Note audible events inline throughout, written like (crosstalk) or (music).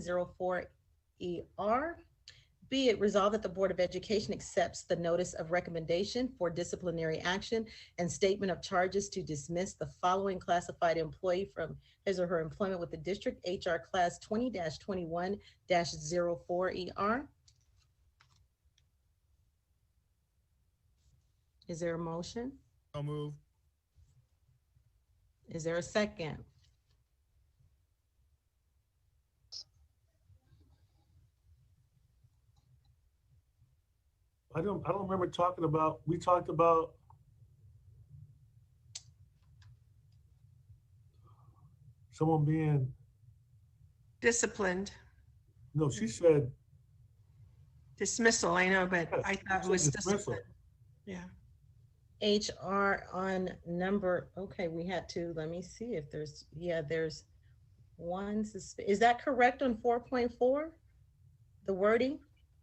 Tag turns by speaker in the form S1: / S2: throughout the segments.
S1: 04ER. E Be it resolved that the Board of Education accepts the notice of recommendation for disciplinary action and statement of charges to dismiss the following classified employee from his or her employment with the district HR class 20-21-04ER. Is there a motion?
S2: So move.
S1: Is there a second?
S3: I don't, I don't remember talking about, we talked about. Someone being,
S4: disciplined
S3: no, she said.
S4: dismissal, I know, but I
S3: yes,
S4: thought
S3: she
S4: it was
S3: said dismissal.
S4: discipline. Yeah,
S1: HR on number, okay, we had to, let me see if there's, yeah, there's one, sus- is that correct on 4.4? The wording?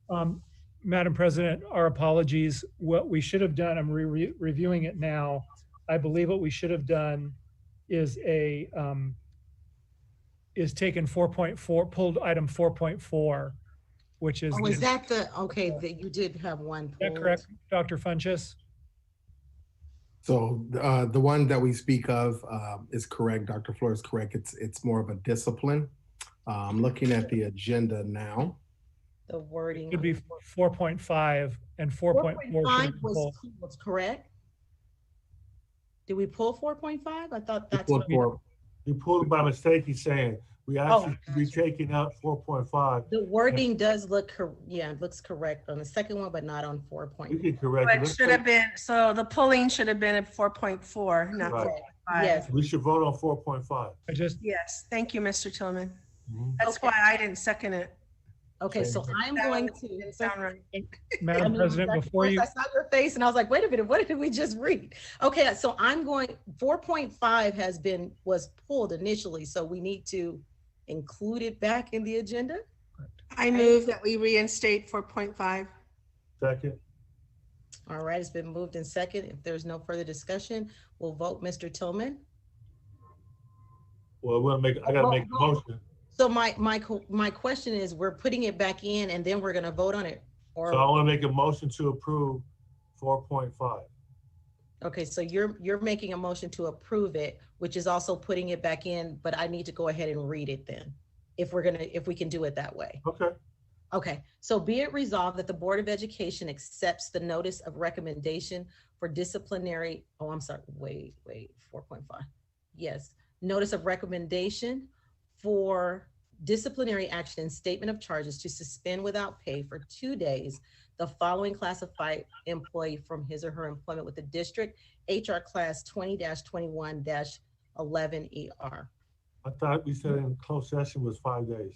S5: Um, Madam President, our apologies. What we should have done, I'm re- re- reviewing it now. I believe what we should have done is a, um, is taken 4.4, pulled item 4.4, which is,
S1: Oh, is
S5: is
S1: that the, okay, that you did have one.
S5: that
S1: pulled.
S5: correct, Dr. Funchess?
S6: So uh, the one that we speak of um, is correct. Dr. Floor is correct. It's it's more of a discipline. Uh, I'm looking at the agenda now.
S1: The wording.
S5: Could be 4.5 and 4.4 should
S1: 4.5
S5: have been
S1: was
S5: pulled.
S1: pulled, correct? Did we pull 4.5? I thought
S6: We
S1: that's
S6: pulled
S1: what,
S6: four-
S3: He pulled it by mistake, he's saying, we actually should be taking out four point five.
S1: the wording does look, cor- yeah, it looks correct on the second one, but not on
S3: We
S1: 4.4.
S3: can correct it.
S4: but
S3: Let's
S4: should have been, so the pulling should have been at four point four, not
S3: Right.
S4: four
S1: Okay,
S4: point five.
S1: Yes.
S3: take- We should vote on four point five.
S5: I just,
S4: Yes, thank you, Mr. Tillman.
S3: Mhm.
S4: That's
S1: Okay.
S4: why I didn't second it.
S1: Okay, so I'm going
S4: Didn't
S1: to.
S4: sound right.
S1: I
S5: Madam
S1: mean,
S5: President,
S1: that's-
S5: before
S1: first
S5: you,
S1: I saw your face and I was like, wait a minute, what did we just read? Okay, so I'm going, four point five has been, was pulled initially, so we need to include it back in the agenda?
S4: I move that we reinstate four point five.
S3: Second,
S1: All right, it's been moved in second. If there's no further discussion, we'll vote Mr. Tillman.
S3: well, we'll make, I gotta make a motion.
S1: So my, my, co- my question is, we're putting it back in and then we're gonna vote on it?
S3: So I
S1: Or,
S3: wanna make a motion to approve four point five.
S1: okay, so you're, you're making a motion to approve it, which is also putting it back in, but I need to go ahead and read it then, if we're gonna, if we can do it that way.
S3: Okay,
S1: Okay, so be it resolved that the Board of Education accepts the notice of recommendation for disciplinary, oh, I'm sorry, wait, wait, four point five. Yes, notice of recommendation for disciplinary action and statement of charges to suspend without pay for two days the following classified employee from his or her employment with the district, HR class twenty twenty-one eleven ER.
S3: I thought we said in closed session was five days.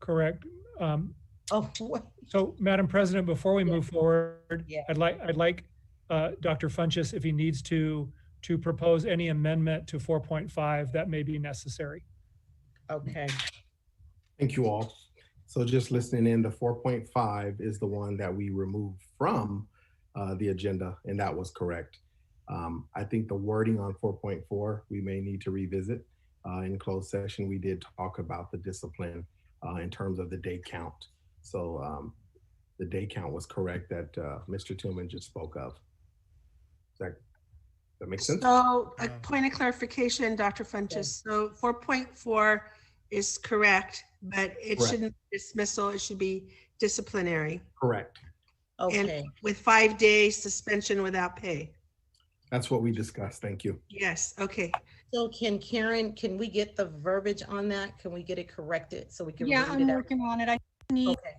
S5: correct. Um,
S1: Oh, (laughs) what?
S5: So, Madam President, before we
S1: Yeah.
S5: move forward,
S1: Yeah.
S5: I'd like, I'd like uh, Dr. Funchess, if he needs to, to propose any amendment to 4.5 that may be necessary.
S1: okay,
S6: Thank you all. So just listening in, the 4.5 is the one that we removed from uh, the agenda, and that was correct. Um, I think the wording on 4.4 we may need to revisit. Uh, in closed session, we did talk about the discipline uh, in terms of the day count. So um, the day count was correct that uh, Mr. Tillman just spoke of. Does that, that make sense?
S4: So a
S2: Uh,
S4: point of clarification, Dr. Funchess. So four point four is correct, but it
S6: Correct.
S4: shouldn't be dismissal, it should be disciplinary
S6: Correct.
S1: okay.
S4: with five day suspension without pay.
S6: That's what we discussed. Thank you.
S4: Yes, okay.
S1: So can Karen, can we get the verbiage on that? Can we get it corrected so we can
S7: Yeah,
S1: read
S7: I'm
S1: it out? Oh.
S7: working on it. I need,
S1: Okay,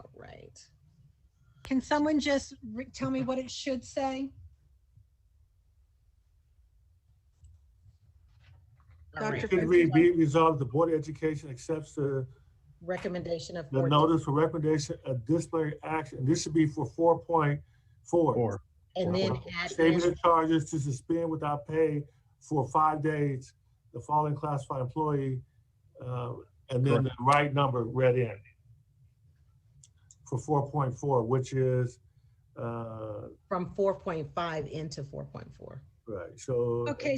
S1: all right.
S7: can someone just re- tell me what it should say?
S1: All
S4: Dr.
S1: right.
S3: Should we be resolved, the Board of Education accepts the
S1: Recommendation of.
S3: The
S1: four-
S3: notice for recommendation of disciplinary action, this should be for four point four.
S6: Or
S1: And then
S6: Or-
S1: add
S3: Statement
S1: in,
S3: of charges to suspend without pay for five days, the following classified employee, uh, and then the right number read in. For four point four, which is, uh,
S1: from four point five into four point four.
S8: Right, so.
S3: Okay,